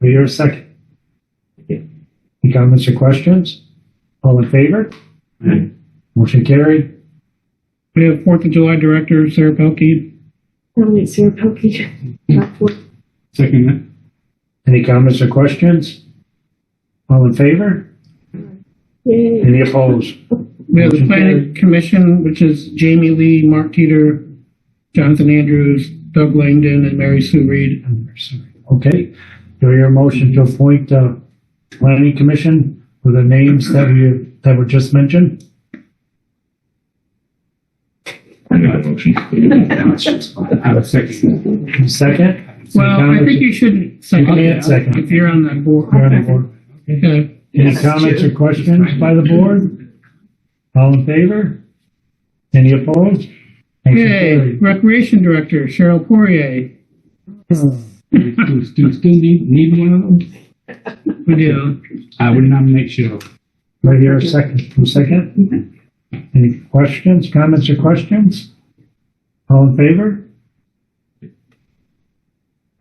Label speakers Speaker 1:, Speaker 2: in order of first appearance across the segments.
Speaker 1: Do I hear a second? Any comments or questions? All in favor?
Speaker 2: Aye.
Speaker 1: Motion carried.
Speaker 3: We have Fourth of July Director Sarah Pelkey.
Speaker 4: Nominate Sarah Pelkey. Not for-
Speaker 2: Second that.
Speaker 1: Any comments or questions? All in favor?
Speaker 3: Mm-hmm.
Speaker 4: Yay.
Speaker 1: Any opposed?
Speaker 3: We have the
Speaker 1: Motion
Speaker 3: Planning Commission, which is Jamie Lee, Mark Teeter, Jonathan Andrews, Doug Langdon, and Mary Sue Reed.
Speaker 1: Okay, do I hear a motion to appoint, uh, planning commission with the names that we, that were just mentioned?
Speaker 5: I make a motion.
Speaker 2: I would second
Speaker 1: Second?
Speaker 3: Well, I think you should second
Speaker 1: You
Speaker 3: it
Speaker 1: can't second.
Speaker 3: if you're on that board.
Speaker 1: You're on the board.
Speaker 3: Okay.
Speaker 1: Any comments or questions by the board? All in favor? Any opposed? Motion
Speaker 3: Okay,
Speaker 1: carried.
Speaker 3: Recreation Director Cheryl Poirier.
Speaker 2: that. Do, do, still need, need one of them?
Speaker 3: We do.
Speaker 2: I would nominate Cheryl.
Speaker 1: Right here, a second, from second. Any questions, comments or questions? All in favor?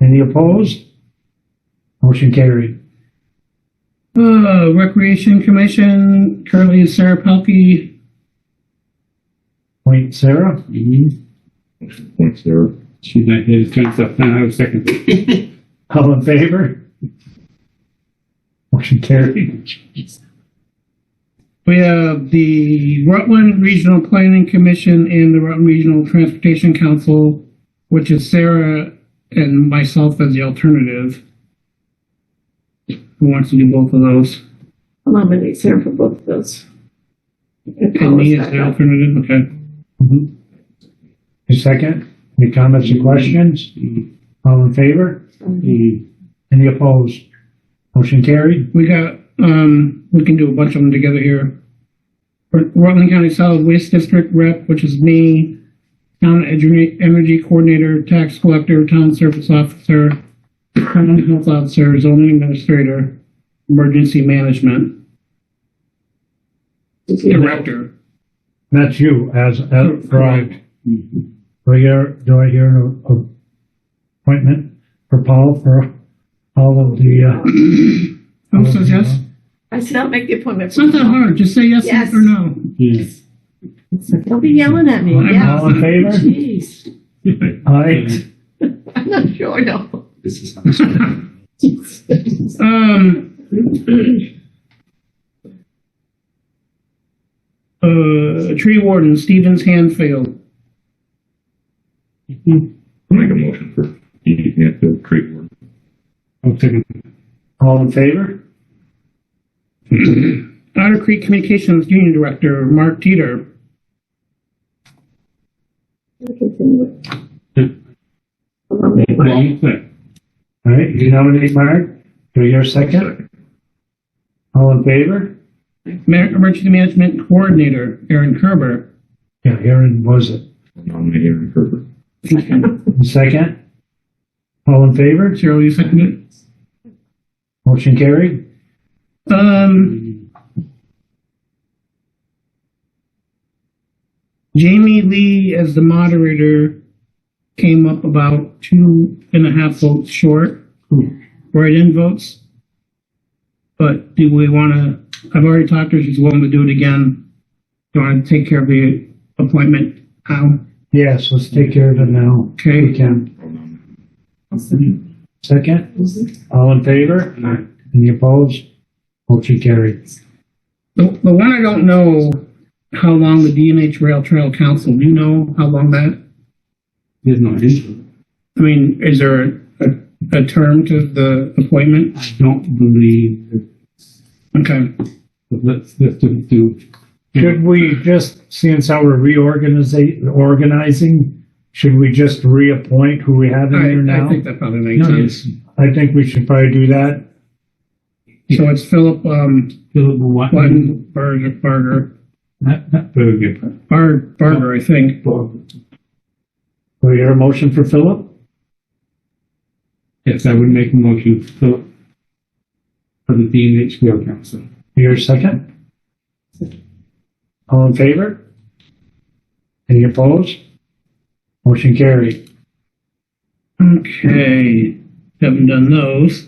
Speaker 1: Any opposed? Motion carried.
Speaker 3: Uh, Recreation Commission currently is Sarah Pelkey.
Speaker 1: Point Sarah,
Speaker 2: Mhm.
Speaker 5: Motion Points there.
Speaker 2: She's not here, it's kind of stuff. No, I would second that.
Speaker 1: all in favor? Motion carried.
Speaker 3: We have the Rutland Regional Planning Commission and the Rutland Regional Transportation Council, which is Sarah and myself as the alternative. Who wants to do both of those?
Speaker 4: I'll nominate Sarah for both of those. And
Speaker 3: And
Speaker 4: Paula's
Speaker 3: me as
Speaker 4: back
Speaker 3: the
Speaker 4: up.
Speaker 3: alternative, okay.
Speaker 1: A Mm-hmm. second, any comments or questions?
Speaker 2: Mhm.
Speaker 1: All in favor?
Speaker 2: Mhm.
Speaker 1: Any opposed? Motion carried.
Speaker 3: We got, um, we can do a bunch of them together here. Rut- Rutland County Solid Waste District Rep, which is me, Town Energy Energy Coordinator, Tax Collector, Town Service Officer, Town Health Officer, Zoning Administrator, Emergency Management
Speaker 4: Did you-
Speaker 3: Director.
Speaker 1: That's you as, as, for all.
Speaker 2: Mhm.
Speaker 1: Do I hear, do I hear an a- appointment for Paul for all of the, uh?
Speaker 3: Who says yes?
Speaker 4: I said I'll make the appointment.
Speaker 3: It's not that hard, just say yes
Speaker 4: Yes.
Speaker 3: or no.
Speaker 2: Yes.
Speaker 4: Don't be yelling at me,
Speaker 3: I'm
Speaker 4: yeah.
Speaker 1: All in favor?
Speaker 4: Jeez,
Speaker 1: Aye.
Speaker 4: I'm not sure, no.
Speaker 5: This is how it's done.
Speaker 3: Um. Uh, Tree Warden, Stevens Hanfield.
Speaker 5: I'll make a motion for Edie Canfield Creek Board.
Speaker 2: I'll second that.
Speaker 1: All in favor?
Speaker 3: Otter Creek Communications Union Director, Mark Teeter.
Speaker 4: I'll
Speaker 2: Yeah.
Speaker 4: nominate
Speaker 2: Well,
Speaker 4: Mark.
Speaker 2: I'm set.
Speaker 1: All right, you nominate Mark. Do I hear a second?
Speaker 5: Second.
Speaker 1: All in favor?
Speaker 3: Ma- Emergency Management Coordinator, Aaron Kerber.
Speaker 1: Yeah, Aaron was it.
Speaker 5: I'll Nominate Aaron Herbert.
Speaker 1: Second? All in favor?
Speaker 3: Cheryl, you seconded?
Speaker 1: Motion carried.
Speaker 3: it? Um,
Speaker 2: Mhm.
Speaker 3: Jamie Lee as the moderator came up about two and a half votes short, write-in votes. But do we want to, I've already talked to her, she's willing to do it again. Do you want to take care of the appointment now?
Speaker 1: Yes, let's take care of it now. We
Speaker 3: Okay,
Speaker 1: can.
Speaker 5: I'll nominate.
Speaker 1: Second? All in favor?
Speaker 2: Aye.
Speaker 1: Any opposed? Motion carried.
Speaker 3: the, the one I don't know how long the DNH Rail Trail Council, do you know how long that?
Speaker 2: There's no issue.
Speaker 3: I mean, is there a, a term to the appointment?
Speaker 2: I don't believe, that-
Speaker 3: Okay,
Speaker 2: but let's, let's do, do.
Speaker 1: Should we just, since how we're reorganizing, organizing, should we just reappoint who we have in
Speaker 3: I,
Speaker 1: there
Speaker 3: I
Speaker 1: now?
Speaker 3: think that probably makes
Speaker 2: No,
Speaker 3: sense.
Speaker 2: yes.
Speaker 1: I think we should probably do that.
Speaker 3: So it's Philip, um,
Speaker 2: Philip Watson.
Speaker 3: Button, Berger, Barger,
Speaker 2: Not, not Berger, but
Speaker 3: Bar, Barger, I think.
Speaker 2: Barger.
Speaker 1: Do we hear a motion for Philip?
Speaker 2: Yes, I would make a motion for, for the DNH Rail Council.
Speaker 1: Your second? All in favor? Any opposed? Motion carried.
Speaker 3: Okay, haven't done those.